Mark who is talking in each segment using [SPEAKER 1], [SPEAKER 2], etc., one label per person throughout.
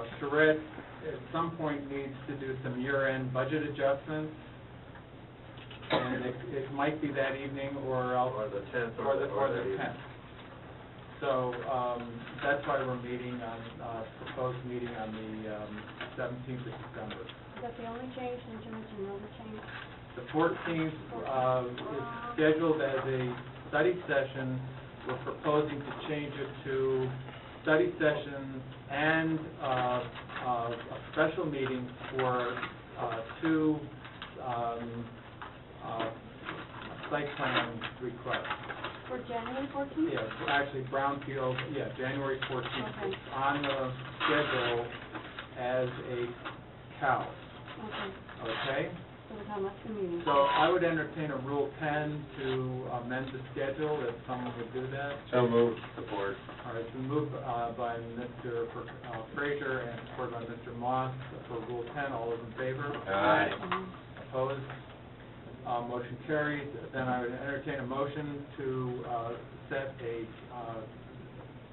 [SPEAKER 1] Mr. Red, at some point, needs to do some year-end budget adjustments, and it, it might be that evening, or else...
[SPEAKER 2] Or the 10th or
[SPEAKER 1] Or the,
[SPEAKER 2] the-
[SPEAKER 1] or
[SPEAKER 2] or
[SPEAKER 1] the
[SPEAKER 2] the-
[SPEAKER 1] 10th. So, um, that's why we're meeting on, uh, proposed meeting on the um, 17th of December.
[SPEAKER 3] Is that the only change, did you mention the other change?
[SPEAKER 1] The 14th uh, is scheduled as a study session. We're proposing to change it to study session and uh, uh, a special meeting for uh, two um, uh, site plan requests.
[SPEAKER 3] For January fourteenth?
[SPEAKER 1] Yes, actually Brownfield, yeah, January 14th is on the schedule as a cow,
[SPEAKER 3] Okay,
[SPEAKER 1] okay?
[SPEAKER 3] so we're talking about two meetings.
[SPEAKER 1] So I would entertain a Rule 10 to amend the schedule, if someone would do that.
[SPEAKER 4] So moved.
[SPEAKER 2] Support.
[SPEAKER 1] All right, it's been moved uh, by Mr. uh, Frazier and supported by Mr. Moss for Rule 10. All those in favor?
[SPEAKER 4] Aye.
[SPEAKER 3] Um,
[SPEAKER 1] Opposed? Uh, Motion carries. Then I would entertain a motion to uh, set a uh,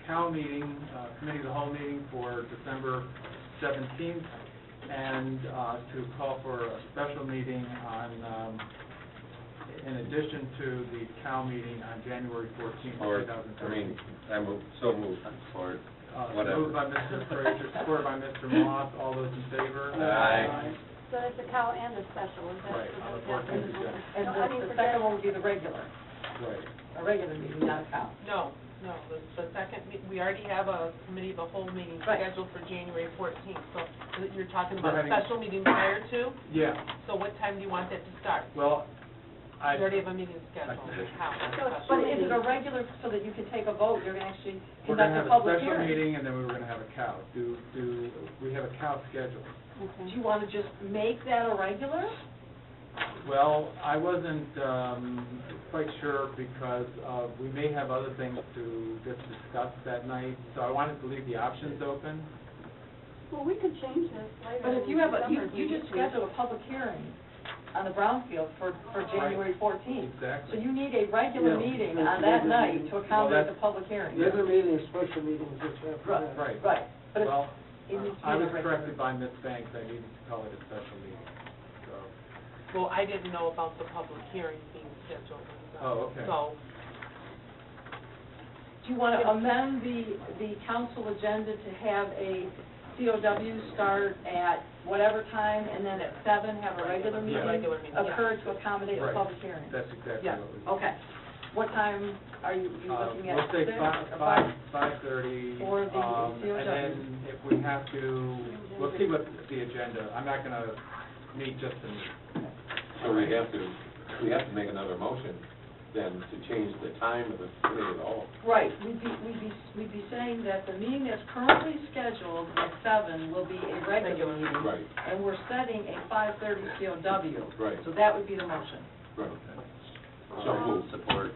[SPEAKER 1] COW meeting, uh, committee of the whole meeting for December 17th, and uh, to call for a special meeting on, um, in addition to the COW meeting on January 14th,
[SPEAKER 4] Or,
[SPEAKER 1] 2013.
[SPEAKER 4] I mean, I moved, so moved.
[SPEAKER 2] Support.
[SPEAKER 1] Uh,
[SPEAKER 4] whatever.
[SPEAKER 1] Moved by Mr. Frazier, supported by Mr. Moss. All those in favor?
[SPEAKER 4] Aye.
[SPEAKER 3] So that's the cow and the special, is that?
[SPEAKER 1] Right,
[SPEAKER 3] is
[SPEAKER 1] on the
[SPEAKER 3] that-
[SPEAKER 1] 14th, yeah.
[SPEAKER 3] No,
[SPEAKER 5] And
[SPEAKER 3] I mean,
[SPEAKER 5] the-
[SPEAKER 3] for
[SPEAKER 5] the second
[SPEAKER 3] Jan-
[SPEAKER 5] one would be the regular,
[SPEAKER 1] Right.
[SPEAKER 5] a regular meeting, not a cow.
[SPEAKER 6] No, no, the, the second, me- we already have a committee of the whole meeting
[SPEAKER 5] Right.
[SPEAKER 6] scheduled for January fourteenth, so you're talking
[SPEAKER 1] We're
[SPEAKER 6] about a
[SPEAKER 1] having-
[SPEAKER 6] special meeting prior to,
[SPEAKER 1] Yeah,
[SPEAKER 6] so what time do you want that to start?
[SPEAKER 1] well, I...
[SPEAKER 6] You already have a meeting scheduled, how?
[SPEAKER 5] So it's- But is it a regular, so that you can take a vote, you're gonna actually
[SPEAKER 1] We're gonna
[SPEAKER 5] conduct
[SPEAKER 1] have
[SPEAKER 5] a
[SPEAKER 1] a
[SPEAKER 5] public
[SPEAKER 1] special
[SPEAKER 5] hearing?
[SPEAKER 1] meeting, and then we were gonna have a cow. Do, do, we have a cow scheduled.
[SPEAKER 5] Do
[SPEAKER 3] Okay.
[SPEAKER 5] you wanna just make that a regular?
[SPEAKER 1] Well, I wasn't, um, quite sure because, uh, we may have other things to just discuss that night, so I wanted to leave the options open.
[SPEAKER 3] Well, we could change this later.
[SPEAKER 5] But if
[SPEAKER 3] in
[SPEAKER 5] you have a, you,
[SPEAKER 3] December if
[SPEAKER 5] you
[SPEAKER 3] we
[SPEAKER 5] just
[SPEAKER 3] need to.
[SPEAKER 5] schedule a public hearing on the Brownfield for, for
[SPEAKER 1] Right.
[SPEAKER 5] January fourteenth. So
[SPEAKER 1] Exactly.
[SPEAKER 5] you need a regular
[SPEAKER 7] Yeah.
[SPEAKER 5] meeting on that night to accommodate
[SPEAKER 1] that's-
[SPEAKER 5] the public hearing.
[SPEAKER 1] Yeah.
[SPEAKER 7] Regular meeting, special meeting, just after
[SPEAKER 5] Right.
[SPEAKER 7] that.
[SPEAKER 1] Right.
[SPEAKER 5] Right, but it's,
[SPEAKER 1] Well,
[SPEAKER 5] it needs to
[SPEAKER 1] I
[SPEAKER 5] be
[SPEAKER 1] was
[SPEAKER 5] a regular.
[SPEAKER 1] corrected by Ms. Banks, I needed to call it a special meeting, so,
[SPEAKER 6] Well, I didn't know about the public hearing being scheduled. so-
[SPEAKER 1] Oh, okay.
[SPEAKER 6] So,
[SPEAKER 5] Do you wanna amend the, the council agenda to have a COW start at whatever time, and then at seven have a regular
[SPEAKER 1] Yeah.
[SPEAKER 5] meeting?
[SPEAKER 6] regular meeting, yeah.
[SPEAKER 5] Occur to accommodate a
[SPEAKER 1] Right.
[SPEAKER 5] public hearing?
[SPEAKER 1] that's exactly
[SPEAKER 6] Yeah,
[SPEAKER 1] what we...
[SPEAKER 5] Okay. What time are you, you
[SPEAKER 1] Uh,
[SPEAKER 5] looking at?
[SPEAKER 1] Let's say
[SPEAKER 5] Six
[SPEAKER 1] five,
[SPEAKER 5] or
[SPEAKER 1] five, five-thirty.
[SPEAKER 5] Or the COW.
[SPEAKER 1] And then if we have to, we'll see what the agenda, I'm not gonna meet just to meet.
[SPEAKER 4] So we have to, we have to make another motion then to change the time of the committee at all.
[SPEAKER 5] Right, we'd be, we'd be, we'd be saying that the meeting that's currently scheduled at seven will be a regular meeting.
[SPEAKER 4] Right.
[SPEAKER 5] And we're setting a five-thirty COW.
[SPEAKER 4] Right.
[SPEAKER 5] So that would be the motion.
[SPEAKER 4] Right. So
[SPEAKER 1] Uh-huh.
[SPEAKER 4] moved. Support.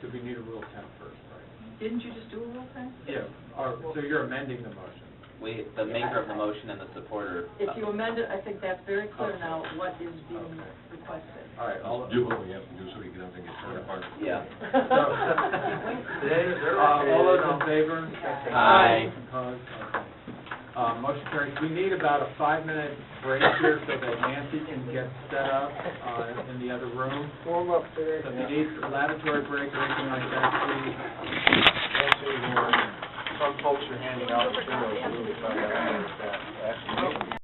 [SPEAKER 1] Do we need a Rule 10 first, right?
[SPEAKER 5] Didn't you just do a rule thing?
[SPEAKER 1] Yeah. Or, so you're amending the motion?
[SPEAKER 8] We, the maker of the motion and the supporter.
[SPEAKER 5] If you amend it, I think that's very
[SPEAKER 1] Okay.
[SPEAKER 5] clear now what is being
[SPEAKER 1] Okay.
[SPEAKER 5] requested.
[SPEAKER 1] All right, I'll...
[SPEAKER 4] Do what we have to do so we can have to get torn apart.
[SPEAKER 8] Yeah.
[SPEAKER 1] So-
[SPEAKER 2] They,
[SPEAKER 1] Uh,
[SPEAKER 2] they're.
[SPEAKER 1] all those in favor?
[SPEAKER 8] Aye.
[SPEAKER 1] Opposed? Okay. Uh, motion carries. We need about a five-minute break here so that Nancy can get set up, uh, in the other room.
[SPEAKER 7] Warm up there.
[SPEAKER 1] So if you need a lavatory break or anything like that, please
[SPEAKER 2] Actually, some folks are handing out.